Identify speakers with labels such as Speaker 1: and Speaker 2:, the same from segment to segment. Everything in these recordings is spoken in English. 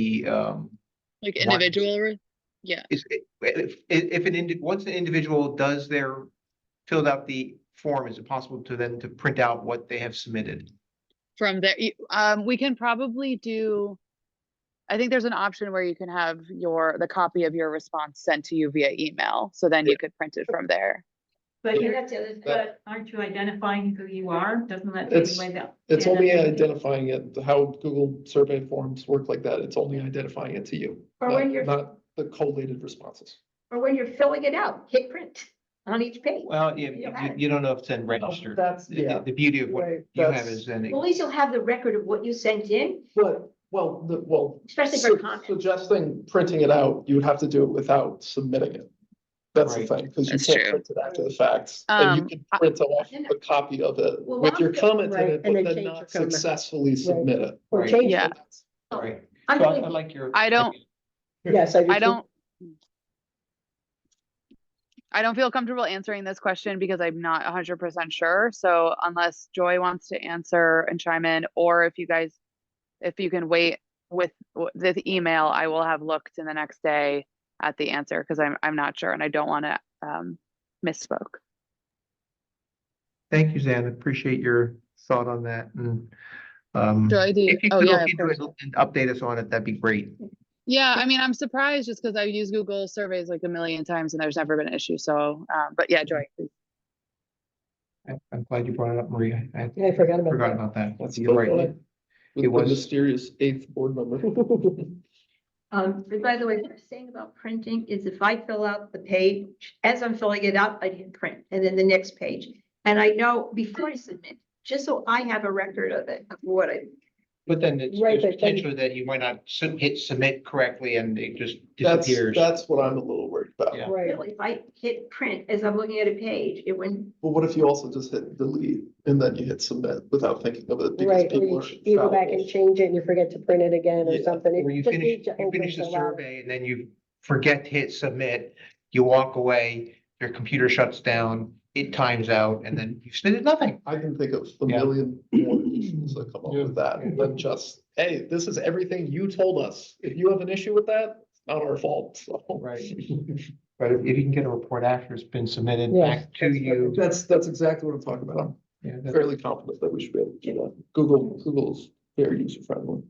Speaker 1: the, um,
Speaker 2: Like
Speaker 1: Why-
Speaker 2: individual, re- yeah,
Speaker 1: is, if, if an indi, once an individual does their, filled out the form, is it possible to them to print out what they have submitted?
Speaker 2: from there, you- um, we can probably do. I think there's an option where you can have your, the copy of your response sent to you via email, so then you could print it from there.
Speaker 3: But
Speaker 4: Yeah,
Speaker 3: you're, but aren't you identifying who you are? Doesn't that take
Speaker 4: It's-
Speaker 3: away that?
Speaker 4: It's only
Speaker 3: anonymity?
Speaker 4: identifying it, how Google survey forms work like that. It's only identifying it to you,
Speaker 5: Or when you're-
Speaker 4: not, not the collated responses.
Speaker 5: or when you're filling it out, hit print on each page. Well,
Speaker 1: Well, you, you,
Speaker 5: Yeah.
Speaker 1: you don't know if it's then registered.
Speaker 4: That's,
Speaker 1: The- The, the beauty of what you have is then, it-
Speaker 5: At least you'll have the record of what you sent in,
Speaker 4: But, well, the, well.
Speaker 5: especially for
Speaker 4: su-
Speaker 5: comments.
Speaker 4: Suggesting printing it out, you would have to do it without submitting it. That's the
Speaker 1: Right.
Speaker 4: thing, because you
Speaker 2: That's
Speaker 4: can't
Speaker 2: true.
Speaker 4: print it after the fact. And you
Speaker 2: Um,
Speaker 4: can
Speaker 2: I-
Speaker 4: print off a copy of it
Speaker 5: Well,
Speaker 4: with your
Speaker 5: I'm-
Speaker 4: comment in
Speaker 6: Right,
Speaker 4: it,
Speaker 6: and
Speaker 4: but
Speaker 6: then
Speaker 4: then
Speaker 6: change
Speaker 4: not
Speaker 6: the comment.
Speaker 4: successfully submit it.
Speaker 6: Or
Speaker 1: Right.
Speaker 6: change
Speaker 2: Yeah.
Speaker 6: it.
Speaker 1: right.
Speaker 5: I'm
Speaker 1: So I I
Speaker 5: thinking-
Speaker 1: like your.
Speaker 2: I don't-
Speaker 6: Yes, I do.
Speaker 2: I
Speaker 6: too.
Speaker 2: don't. I don't feel comfortable answering this question because I'm not hundred percent sure, so unless Joy wants to answer and chime in, or if you guys. If you can wait with w- this email, I will have looked in the next day at the answer, cause I'm, I'm not sure and I don't wanna, um, misspoke.
Speaker 1: Thank you, Zan. Appreciate your thought on that and, um,
Speaker 2: Joy, do you-
Speaker 1: if you
Speaker 2: oh,
Speaker 1: could
Speaker 2: yeah,
Speaker 1: look
Speaker 2: of
Speaker 1: into it and update us on it, that'd be great.
Speaker 2: Yeah, I mean, I'm surprised just cause I've used Google surveys like a million times and there's never been an issue, so, um, but yeah, Joy. please.
Speaker 1: I- I'm glad you brought it up, Maria. I
Speaker 6: Yeah, I forgot about
Speaker 1: forgot
Speaker 6: that.
Speaker 1: about that.
Speaker 4: That's
Speaker 1: You're
Speaker 4: the
Speaker 1: right.
Speaker 4: one With
Speaker 1: It
Speaker 4: the
Speaker 1: was-
Speaker 4: mysterious eighth board member.
Speaker 5: Um, but by the way, what I'm saying about printing is if I fill out the page, as I'm filling it out, I didn't print, and then the next page. And I know before I submit, just so I have a record of it, of what I,
Speaker 1: But then it's-
Speaker 6: Right,
Speaker 1: there's
Speaker 6: but then-
Speaker 1: potential that you might not sub- hit submit correctly and it just
Speaker 4: That's,
Speaker 1: disappears.
Speaker 4: that's what I'm a little worried about.
Speaker 1: Yeah.
Speaker 6: Right.
Speaker 5: really, if I hit print as I'm looking at a page, it wouldn't.
Speaker 4: Well, what if you also just hit delete and then you hit submit without thinking of it? because
Speaker 6: Right, or
Speaker 4: people
Speaker 6: you,
Speaker 4: are
Speaker 6: ch- you go back
Speaker 4: fallible.
Speaker 6: and change it and you forget to print it again or
Speaker 4: Yeah,
Speaker 6: something.
Speaker 1: Or you
Speaker 6: Just
Speaker 1: finish,
Speaker 6: need to
Speaker 1: you
Speaker 6: open
Speaker 1: finish the
Speaker 6: to allow-
Speaker 1: survey and then you forget to hit submit, you walk away, your computer shuts down, it times out, and then you submitted nothing.
Speaker 4: I can think of a
Speaker 1: Yeah.
Speaker 4: million more issues that come up with that than just, hey, this is everything you told us. If you have an issue with that, it's not our fault. So
Speaker 1: Right. But if you can get a report after it's been submitted
Speaker 6: Yes,
Speaker 1: back to you.
Speaker 4: That's, that's exactly what I'm talking about.
Speaker 1: yeah,
Speaker 4: I'm
Speaker 1: that-
Speaker 4: fairly confident that we should be able to do that. Google, Google's very user friendly.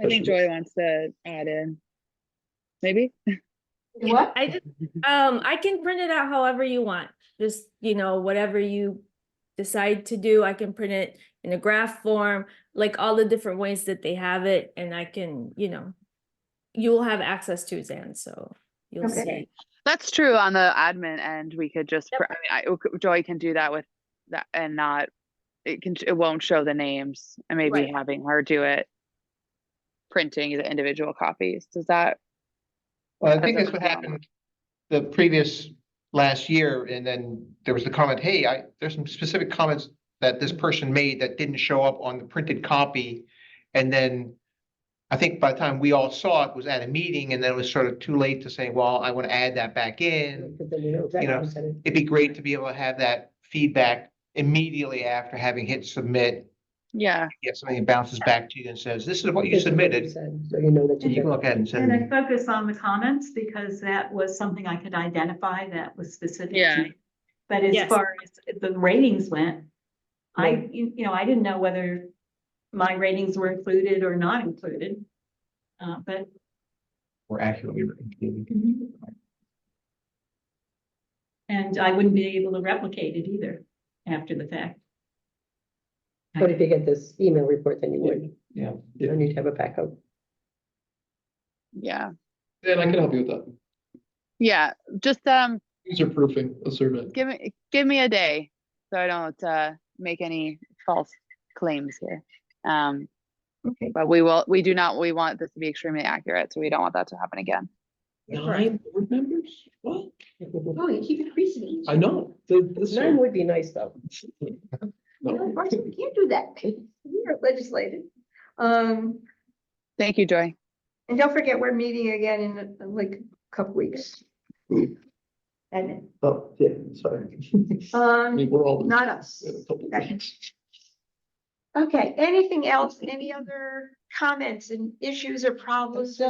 Speaker 2: I think Joy wants to add in. Maybe?
Speaker 5: What?
Speaker 7: I just, um, I can print it out however you want, just, you know, whatever you decide to do, I can print it in a graph form, like all the different ways that they have it, and I can, you know, you will have access to Zan, so you'll
Speaker 5: Okay.
Speaker 7: see.
Speaker 2: That's true on the admin end, we could just,
Speaker 7: Yep.
Speaker 2: pr- I mean, I, Joy can do that with that and not, it can, it won't show the names and maybe
Speaker 5: Right.
Speaker 2: having her do it. Printing the individual copies, does that,
Speaker 1: Well, I
Speaker 2: That's
Speaker 1: think
Speaker 2: a
Speaker 1: that's what
Speaker 2: problem.
Speaker 1: happened the previous last year, and then there was the comment, hey, I, there's some specific comments that this person made that didn't show up on the printed copy. And then I think by the time we all saw it was at a meeting, and then it was sort of too late to say, well, I want to add that back in.
Speaker 6: Because then you know exactly
Speaker 1: know,
Speaker 6: what you said.
Speaker 1: It'd be great to be able to have that feedback immediately after having hit submit.
Speaker 2: yeah,
Speaker 1: Get something that bounces back to you and says, this is what you
Speaker 6: This is what
Speaker 1: submitted,
Speaker 6: said, So you know that
Speaker 1: and you
Speaker 6: you.
Speaker 1: can
Speaker 6: did.
Speaker 1: look at it and
Speaker 3: and I
Speaker 1: send.
Speaker 3: focus on the comments because that was something I could identify that was specific. to
Speaker 2: Yeah.
Speaker 3: me. But as
Speaker 7: Yes.
Speaker 3: far as the ratings went, I,
Speaker 6: Right.
Speaker 3: you you know, I didn't know whether my ratings were included or not included. Uh, but
Speaker 1: Or accurately. written.
Speaker 3: And I wouldn't be able to replicate it either after the fact.
Speaker 6: But if you get this email report, then you would.
Speaker 1: Yeah,
Speaker 4: yeah.
Speaker 6: You need to have a backup.
Speaker 2: yeah,
Speaker 4: And I can help you with that.
Speaker 2: yeah, just, um,
Speaker 4: User proofing a survey.
Speaker 2: give me, give me a day. So I don't, uh, make any false claims here. Um,
Speaker 5: Okay.
Speaker 2: but we will, we do not, we want this to be extremely accurate, so we don't want that to happen again.
Speaker 4: Nine board members? What?
Speaker 5: Oh, you keep increasing each.
Speaker 4: I know. the- this
Speaker 6: Nine
Speaker 4: year-
Speaker 6: would be nice, though.
Speaker 4: No.
Speaker 5: No, Marcy, we can't do that. You're Oh. legislated. Um,
Speaker 2: Thank you, Joy.
Speaker 5: and don't forget, we're meeting again in uh, like a couple weeks. And,
Speaker 4: Oh, yeah, sorry. I mean,
Speaker 5: um,
Speaker 4: we're all.
Speaker 5: not us.
Speaker 4: in a couple of
Speaker 5: Okay.
Speaker 4: weeks.
Speaker 5: Okay, anything else? Any other comments and issues or problems.